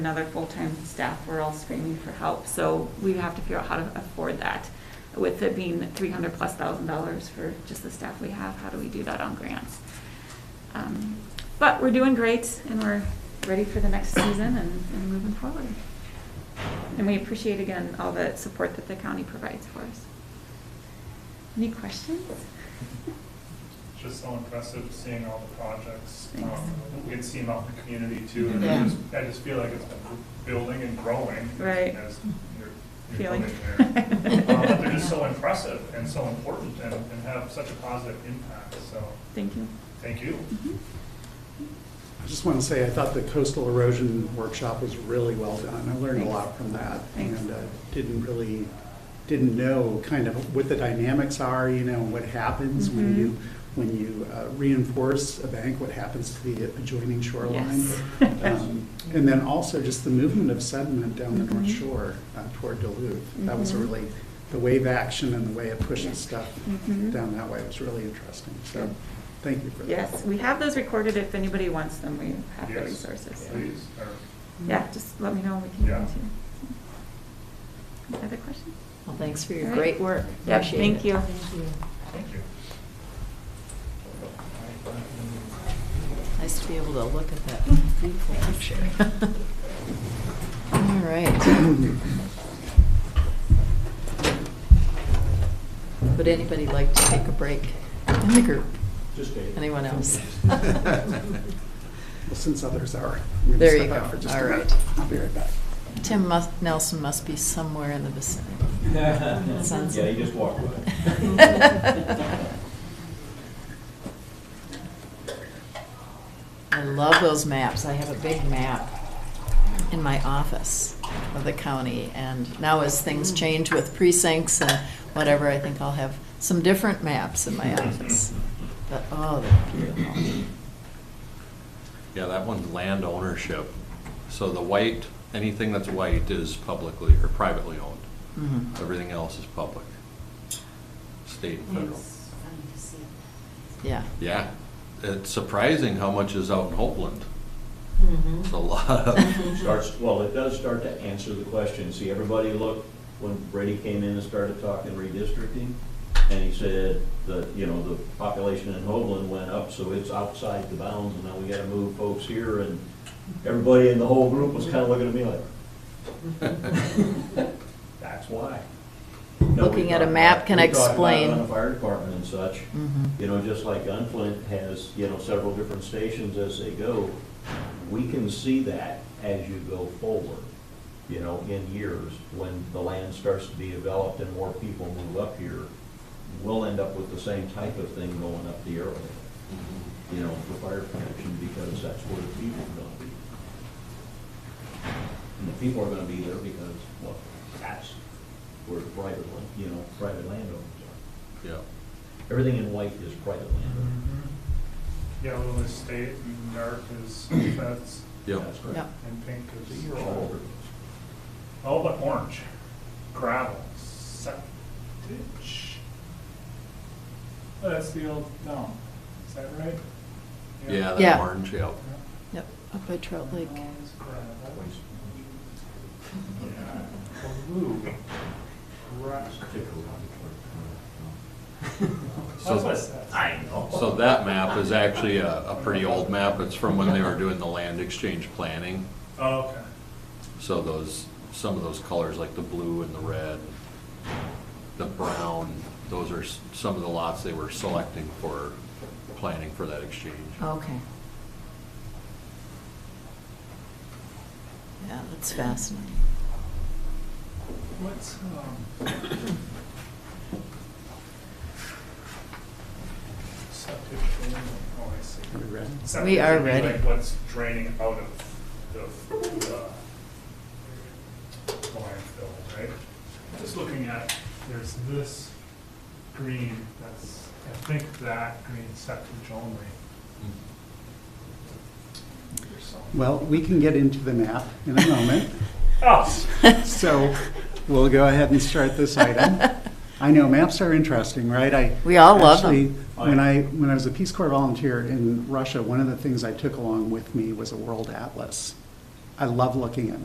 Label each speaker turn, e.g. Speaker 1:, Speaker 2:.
Speaker 1: another full-time staff, we're all screaming for help. So we have to figure out how to afford that. With it being three hundred plus thousand dollars for just the staff we have, how do we do that on grants? Um, But we're doing great and we're ready for the next season and, and moving forward. And we appreciate again all the support that the county provides for us. Any questions?
Speaker 2: It's Just so impressive seeing all the projects um,
Speaker 1: Thanks.
Speaker 2: that we had seen out in the community too. And I
Speaker 3: Yeah.
Speaker 2: just, I just feel like it's been building and growing.
Speaker 1: Right.
Speaker 2: As you're, you're
Speaker 1: Feeling?
Speaker 2: building there. Um, but They're just so impressive and so important and, and have such a positive impact, so
Speaker 1: Thank you.
Speaker 2: thank you.
Speaker 4: I just want to say, I thought the coastal erosion workshop was really well done. I learned a lot from that.
Speaker 1: Thanks.
Speaker 4: And uh, didn't really, didn't know kind of what the dynamics are, you know, what happens when
Speaker 1: Mhm.
Speaker 4: you, when you uh, reinforce a bank, what happens to the adjoining shoreline.
Speaker 1: Mm-hmm. Yes.
Speaker 4: Um, And then also just the movement of sediment down the North
Speaker 1: Mhm.
Speaker 4: Shore uh, toward Duluth. That was a
Speaker 1: Mhm.
Speaker 4: really, the wave action and the way it pushes stuff
Speaker 1: Mhm.
Speaker 4: down that way was really interesting. So,
Speaker 1: Good.
Speaker 4: thank you for that.
Speaker 1: Yes, we have those recorded if anybody wants them, we have the
Speaker 2: Yes,
Speaker 1: resources.
Speaker 2: Please, or,
Speaker 1: Yeah, just let me know, and we can get
Speaker 2: Yeah.
Speaker 1: into Other questions?
Speaker 3: Well, thanks for
Speaker 1: All
Speaker 3: your
Speaker 1: right.
Speaker 3: great work.
Speaker 1: Yeah,
Speaker 3: Appreciate
Speaker 1: thank
Speaker 3: it.
Speaker 1: you.
Speaker 3: Thank you.
Speaker 2: thank you.
Speaker 3: Nice to be able to look at
Speaker 1: Mm-hmm.
Speaker 3: that beautiful picture. All right. Would anybody like to take a break in the group?
Speaker 5: Just a.
Speaker 3: Anyone else?
Speaker 4: Well, since others are. I'm gonna
Speaker 3: There you
Speaker 4: step
Speaker 3: go.
Speaker 4: out for just a
Speaker 3: All
Speaker 4: minute.
Speaker 3: right.
Speaker 4: I'll be right back.
Speaker 3: Tim must, Nelson must be somewhere in the vicinity. Sounds
Speaker 5: Yeah,
Speaker 3: like-
Speaker 5: he just walked away.
Speaker 3: I love those maps. I have a big map in my office of the county, and now as things change with precincts and whatever, I think I'll have some different maps in my office. But, oh, they're beautiful.
Speaker 6: Yeah, that one's land ownership. So the white, anything that's white is publicly or privately owned.
Speaker 3: Mhm.
Speaker 6: Everything else is public, state and federal.
Speaker 3: Yeah.
Speaker 6: Yeah, it's surprising how much is out in Hopeland. It's a lot
Speaker 5: It
Speaker 6: of,
Speaker 5: Starts, well, it does start to answer the question. See, everybody looked, when Brady came in and started talking redistricting, and he said that, you know, the population in Hoagland went up, so it's outside the bounds, and now we gotta move folks here, and everybody in the whole group was kinda looking at me like, that's why. No, we
Speaker 3: Looking at a
Speaker 5: talked
Speaker 3: map
Speaker 5: about-
Speaker 3: can
Speaker 5: we talked about it
Speaker 3: explain.
Speaker 5: On the fire department and such,
Speaker 3: Mhm.
Speaker 5: you know, just like Gunflint has, you know, several different stations as they go, we can see that as you go forward, you know, in years, when the land starts to be developed and more people move up here, we'll end up with the same type of thing going up the arrow, you know, for fire protection, because that's where the people are gonna be. And the people are gonna be there because, well, that's where private, land- you know, private landowners are.
Speaker 6: yeah.
Speaker 5: Everything in white is private
Speaker 2: Mm-hmm.
Speaker 5: land.
Speaker 2: Yellow is state and dark is feds
Speaker 6: Yeah,
Speaker 5: That's correct.
Speaker 3: Yep.
Speaker 2: and pink
Speaker 5: So
Speaker 2: is
Speaker 5: you're all over this.
Speaker 2: all but orange, gravel, septic. Oh, That's the old town, is that right?
Speaker 6: yeah, that
Speaker 3: Yeah.
Speaker 6: orange, yeah.
Speaker 3: Yep, up by Trout Lake.
Speaker 2: Orange, gravel.
Speaker 5: Waste.
Speaker 2: Yeah. Blue. Rock.
Speaker 5: Stick around.
Speaker 2: That's what I
Speaker 6: So,
Speaker 2: said.
Speaker 5: I know.
Speaker 6: so that map is actually a, a pretty old map. It's from when they were doing the land exchange planning.
Speaker 2: Oh, okay.
Speaker 6: So those, some of those colors, like the blue and the red, the brown, those are s- some of the lots they were selecting for, planning for that exchange.
Speaker 3: Okay. Yeah, that's fascinating.
Speaker 2: What's, um. Septic drain, oh, I see.
Speaker 4: Are we ready?
Speaker 2: Septic
Speaker 3: We are
Speaker 2: would be
Speaker 3: ready.
Speaker 2: Like what's draining out of the, uh, the landfill, right? Just looking at, there's this green, that's, I think that green septic only. or something.
Speaker 4: Well, we can get into the map in a moment,
Speaker 2: Oh,
Speaker 4: so we'll go ahead and start this item. I know maps are interesting, right? I
Speaker 3: We all love them.
Speaker 4: actually, When I, when I was a Peace Corps volunteer in Russia, one of the things I took along with me was a world atlas. I love looking at